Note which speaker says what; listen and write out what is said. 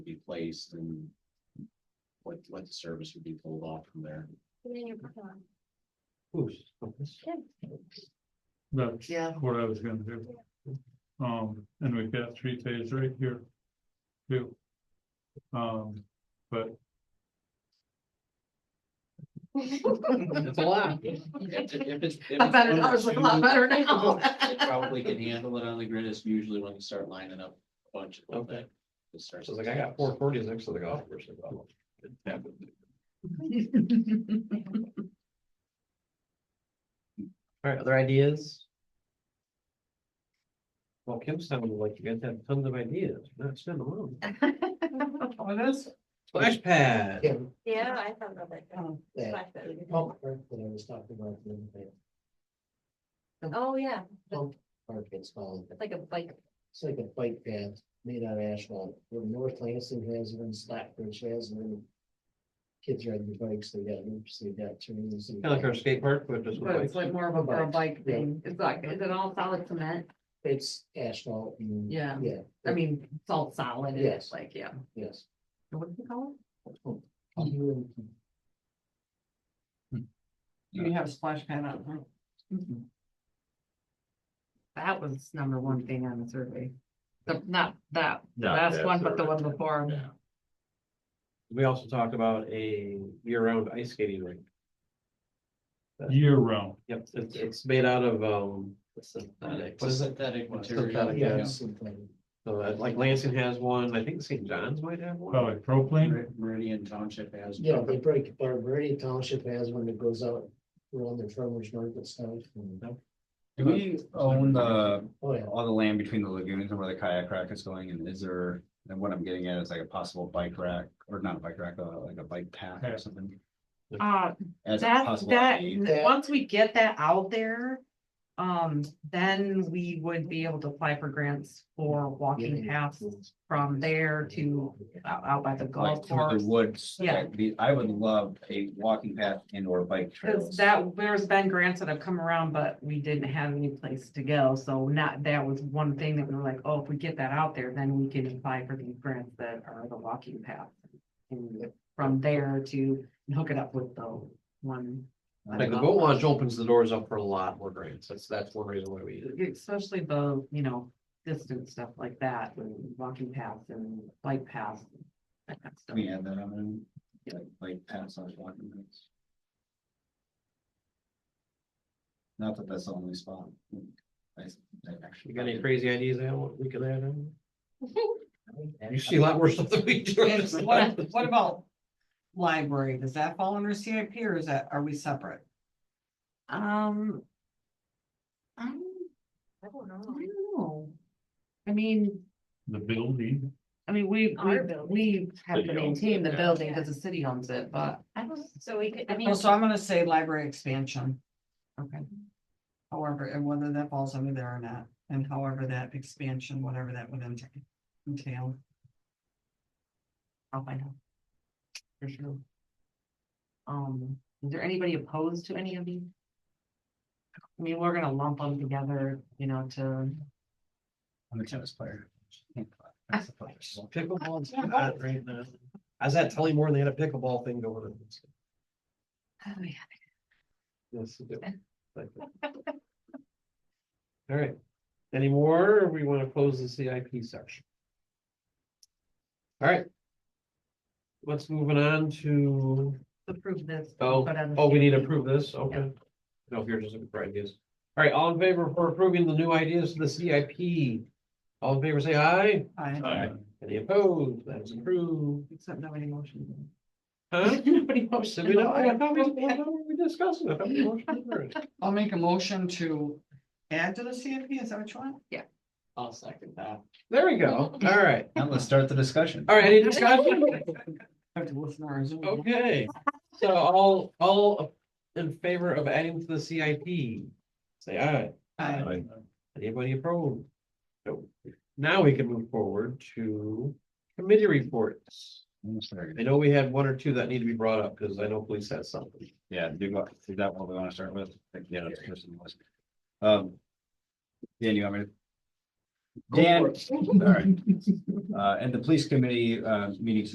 Speaker 1: would be placed and what, what the service would be pulled off from there.
Speaker 2: That's
Speaker 3: Yeah.
Speaker 2: what I was gonna do. Um, and we've got three days right here. Too. Um, but
Speaker 1: It's a lot. If, if it's- if
Speaker 3: I bet it
Speaker 1: it's
Speaker 3: does look a lot better now.
Speaker 1: They Probably can handle it on the grid, it's usually when you start lining up a bunch of them that. it starts-
Speaker 4: So it's like I got four forties next to the golf course. "Oh." Alright, other ideas? Well, Kim sounded like you guys have tons of ideas, not send them alone.
Speaker 2: on this,
Speaker 4: Splash pad.
Speaker 5: Yeah.
Speaker 3: Yeah, I thought about that.
Speaker 5: That pump park that I was talking about, the other day,
Speaker 3: Oh, yeah,
Speaker 5: park it's called,
Speaker 3: it's like a bike.
Speaker 5: it's like a bike path made out of asphalt, where North Lansing has it and Slackbridge has it. and Kids ride their bikes, they got loops, they got turns. and-
Speaker 4: Kind of like our skate park, but just.
Speaker 3: But it's like more of a, a bike
Speaker 5: Yeah.
Speaker 3: thing. It's like, is it all solid cement?
Speaker 5: It's asphalt. and-
Speaker 3: Yeah.
Speaker 5: Yeah,
Speaker 3: I mean, it's all solid. and It's
Speaker 5: Yes.
Speaker 3: like, yeah.
Speaker 5: yes.
Speaker 3: And What do you call
Speaker 4: Mm-hmm.
Speaker 6: You have a splash pad out there.
Speaker 3: it? Mm-hmm. That was number one thing on the survey. The, not that, last one, but the one before.
Speaker 4: We also talked about a year-round ice skating rink.
Speaker 2: year round,
Speaker 4: Yep, it's, it's made out of, um. synthetic.
Speaker 1: It's a synthetic material.
Speaker 4: Synthetic,
Speaker 1: yeah.
Speaker 5: Yeah, something.
Speaker 4: So that, like Lansing has one, I think St. John's might have one.
Speaker 2: probably propane.
Speaker 1: Mer- Meridian Township has.
Speaker 5: Yeah, they break, Barbary Township has one that goes out around the farmers market stuff. and-
Speaker 7: Do we own the,
Speaker 5: Oh, yeah.
Speaker 7: all the land between the lagoons and where the kayak rack is going, and is there, and what I'm getting at is like a possible bike rack, or not a bike rack, uh, like a bike path
Speaker 2: Yeah.
Speaker 7: or something?
Speaker 3: Ah,
Speaker 6: Uh,
Speaker 7: As a
Speaker 6: That,
Speaker 7: possible
Speaker 6: that,
Speaker 7: aid?
Speaker 5: Yeah.
Speaker 6: once we get that out there, um, then we would be able to apply for grants for walking paths from there to out, out by the
Speaker 7: Like
Speaker 6: golf
Speaker 7: through
Speaker 6: course.
Speaker 7: the woods,
Speaker 6: Yeah.
Speaker 7: like the- I would love a walking path and or bike
Speaker 6: Cause
Speaker 7: trails.
Speaker 6: that, there's been grants that have come around, but we didn't have any place to go, so not, that was one thing that we were like, oh, if we get that out there, then we can apply for these grants that are the walking path. And from there to hook it up with the one,
Speaker 4: Like the boat launch opens the doors up for a lot more grants. That's, that's one reason why we,
Speaker 6: especially the, you know, distance stuff like that, and walking paths and bike paths. that kind of
Speaker 7: Can
Speaker 6: stuff.
Speaker 7: We add that on, there? like, like paths on walking paths. Not that that's the only spot. I, I actually.
Speaker 4: you got any crazy ideas on what we could add in?
Speaker 5: And-
Speaker 4: You see a lot worse stuff than we do.
Speaker 6: Yes,
Speaker 4: It's
Speaker 6: what-
Speaker 4: like-
Speaker 6: what
Speaker 8: about library? Does that fall under CIP or is that, are we separate?
Speaker 6: Um. I don't
Speaker 3: I don't
Speaker 6: I don't know. I mean,
Speaker 2: The E. building,
Speaker 6: I mean, we, we,
Speaker 3: Our building.
Speaker 6: we have to
Speaker 7: City owns
Speaker 6: maintain
Speaker 7: it,
Speaker 6: the
Speaker 7: yeah.
Speaker 6: building because the city owns it, but I was,
Speaker 3: So we could, I mean.
Speaker 8: Oh, So I'm gonna say library expansion,
Speaker 6: okay.
Speaker 8: however, and whether that falls under there or not, and however that expansion, whatever that would ent- entail.
Speaker 6: I'll find out. For sure. Um, is there anybody opposed to any of these? I mean, we're gonna lump them together, you know, to,
Speaker 7: I'm a tennis player.
Speaker 4: Pickleball's hot right now. I was at Tully Moore, they had a pickleball thing going on.
Speaker 6: oh yeah,
Speaker 4: Yes, they do. Like that. All right, any more, or we want to close the CIP section? All right. Let's moving on to,
Speaker 6: approve this.
Speaker 4: oh,
Speaker 6: but on the
Speaker 4: oh, we need to
Speaker 6: CIP.
Speaker 4: approve this, okay. No, here, just looking for ideas. All right, all in favor for approving the new ideas for the CIP? All in favor, say aye.
Speaker 8: I,
Speaker 2: uh,
Speaker 4: Any opposed? That is approved.
Speaker 6: Except nobody motioned.
Speaker 4: Huh?
Speaker 6: Nobody
Speaker 4: Did
Speaker 6: motioned.
Speaker 4: we not, I thought we, I thought we discussed it. I thought we motioned for it.
Speaker 8: I'll make a motion to add to the CIP, is that what you want?
Speaker 4: I'll second that. There we go. All right.
Speaker 7: Now let's start the discussion.
Speaker 4: All right, any discussion?
Speaker 8: I have to listen to our Zoom.
Speaker 4: Okay, so all, all in favor of adding to the CIP? Say aye.
Speaker 8: Aye.
Speaker 4: Anybody opposed? No. Now we can move forward to committee reports.
Speaker 7: I'm sorry.
Speaker 4: I know we had one or two that need to be brought up because I know police has something.
Speaker 7: Yeah, do you go, is that what we want to start with? Like, Yeah. that's the first on the list. Um. Dan, you want me to? Dan, all right. Uh, and the police committee, uh, meetings